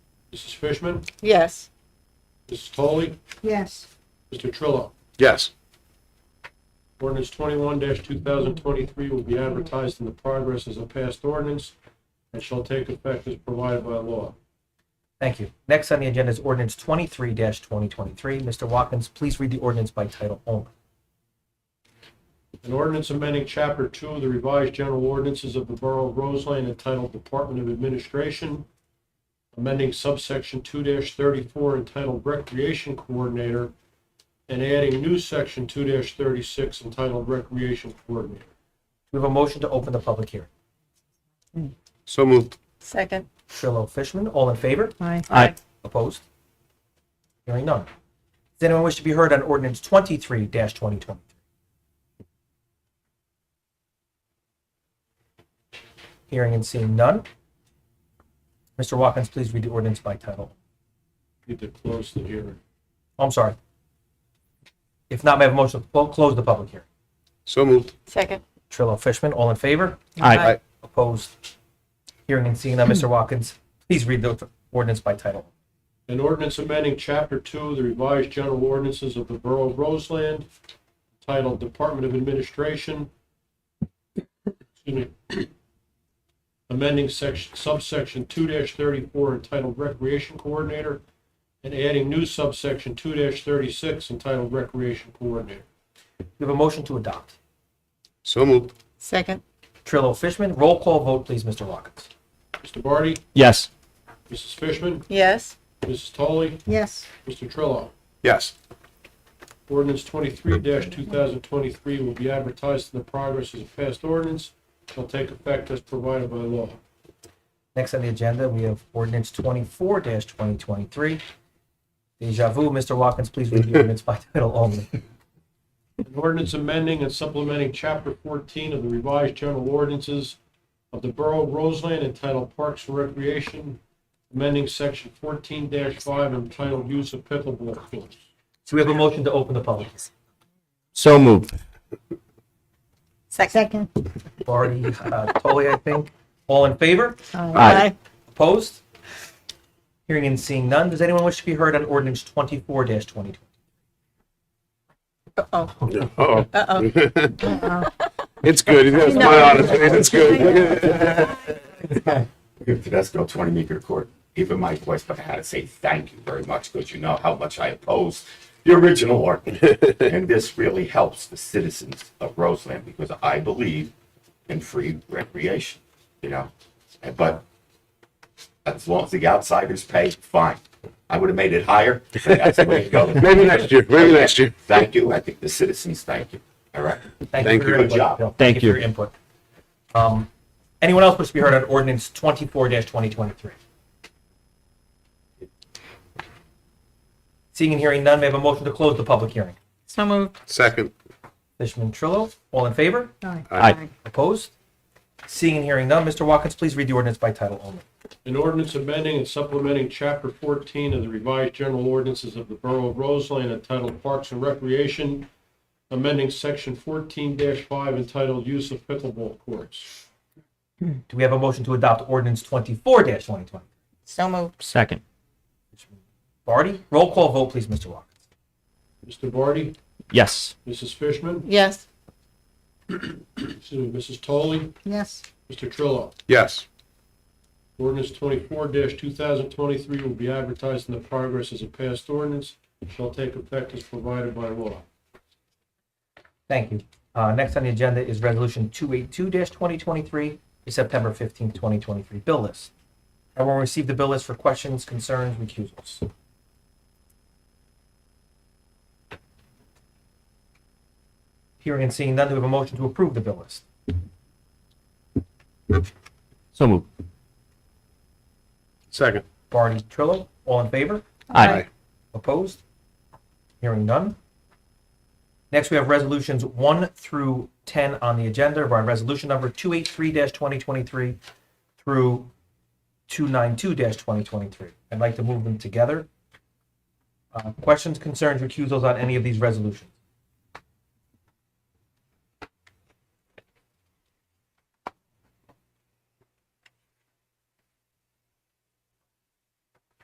Mrs. Fishman, Yes. Mrs. Foley, Yes. Mr. Trillo. Yes. Ordinance twenty-one two thousand twenty-three will be advertised in the progress as a past ordinance and shall take effect as provided by law. Thank you. Next on the agenda is ordinance twenty-three twenty twenty-three. Mr. Watkins, please read the ordinance by title only. An ordinance amending Chapter Two of the revised general ordinances of the Borough of Roseland entitled Department of Administration, amending subsection two thirty-four entitled Recreation Coordinator, and adding new section two thirty-six entitled Recreation Coordinator. We have a motion to open the public hearing. So moved. Second. Trillo, Fishman, all in favor? Aye. Aye. Opposed? Hearing none. Does anyone wish to be heard on ordinance twenty-three twenty twenty-three? Hearing and seeing none. Mr. Watkins, please read the ordinance by title. Need to close the hearing. Oh, I'm sorry. If not, may I have a motion to clo- close the public hearing? So moved. Second. Trillo, Fishman, all in favor? Aye. Opposed? Hearing and seeing none, Mr. Watkins, please read the ordinance by title. An ordinance amending Chapter Two of the revised general ordinances of the Borough of Roseland titled Department of Administration. Excuse me. Amending section, subsection two thirty-four entitled Recreation Coordinator and adding new subsection two thirty-six entitled Recreation Coordinator. We have a motion to adopt. So moved. Second. Trillo, Fishman, roll call vote, please, Mr. Watkins. Mr. Barty, Yes. Mrs. Fishman, Yes. Mrs. Toley, Yes. Mr. Trillo. Yes. Ordinance twenty-three two thousand twenty-three will be advertised in the progress as a past ordinance, shall take effect as provided by law. Next on the agenda, we have ordinance twenty-four twenty twenty-three. Deja vu, Mr. Watkins, please read the ordinance by title only. An ordinance amending and supplementing chapter fourteen of the revised general ordinances of the Borough of Roseland entitled Parks and Recreation, amending section fourteen five entitled Use of Pickleball Fields. So we have a motion to open the public. hearing. So moved. Second. Barty, uh, Toley, I think. All in favor? Aye. Opposed? Hearing and seeing none. Does anyone wish to be heard on ordinance twenty-four twenty twenty? Uh-oh. Uh-oh. Uh-oh. It's good. That's my honest. It's good. Tedesco, 20 Meeker Court. Even my voice, but I had to say thank you very much because you know how much I oppose the original ordinance. and this really helps the citizens of Roseland because I believe in free recreation, you know. And- But as long as the outsiders pay, fine. I would have made it higher. but that's the way it goes. Maybe next year. Maybe next year. Thank you. I think the citizens thank you. All right. Thank for your you. input, Good job. Bill. Thank for you. your input. Um, Anyone else wish to be heard on ordinance twenty-four twenty twenty-three? Seeing and hearing none, may I have a motion to close the public hearing? So moved. Second. Fishman, Trillo, all in favor? Aye. Opposed? Seeing and hearing none, Mr. Watkins, please read the ordinance by title only. An ordinance amending and supplementing Chapter 14 of the revised general ordinances of the Borough of Roseland entitled Parks and Recreation, amending Section 14-5 entitled Use of Pickleball Courts. Do we have a motion to adopt ordinance twenty-four twenty twenty? So moved. Second. Barty, roll call vote, please, Mr. Watkins. Mr. Barty, Yes. Mrs. Fishman, Yes. excuse me, Mrs. Toley, Yes. Mr. Trillo. Yes. Ordinance 24-2023 will be advertised in the progress as a past ordinance, shall take effect as provided by law. Thank you. Uh, next on the agenda is resolution two eight two twenty twenty-three, the September fifteenth, twenty twenty-three bill list. Everyone received the bill list for questions, concerns, recusals. Hearing and seeing none, do we have a motion to approve the bill list? So moved. Second. Barty, Trillo, all in favor? Aye. Opposed? Hearing none. Next, we have resolutions one through 10 on the agenda, by resolution number 283-2023 through 292-2023. I'd like to move them together. Uh, Questions, concerns, recusals on any of these resolutions?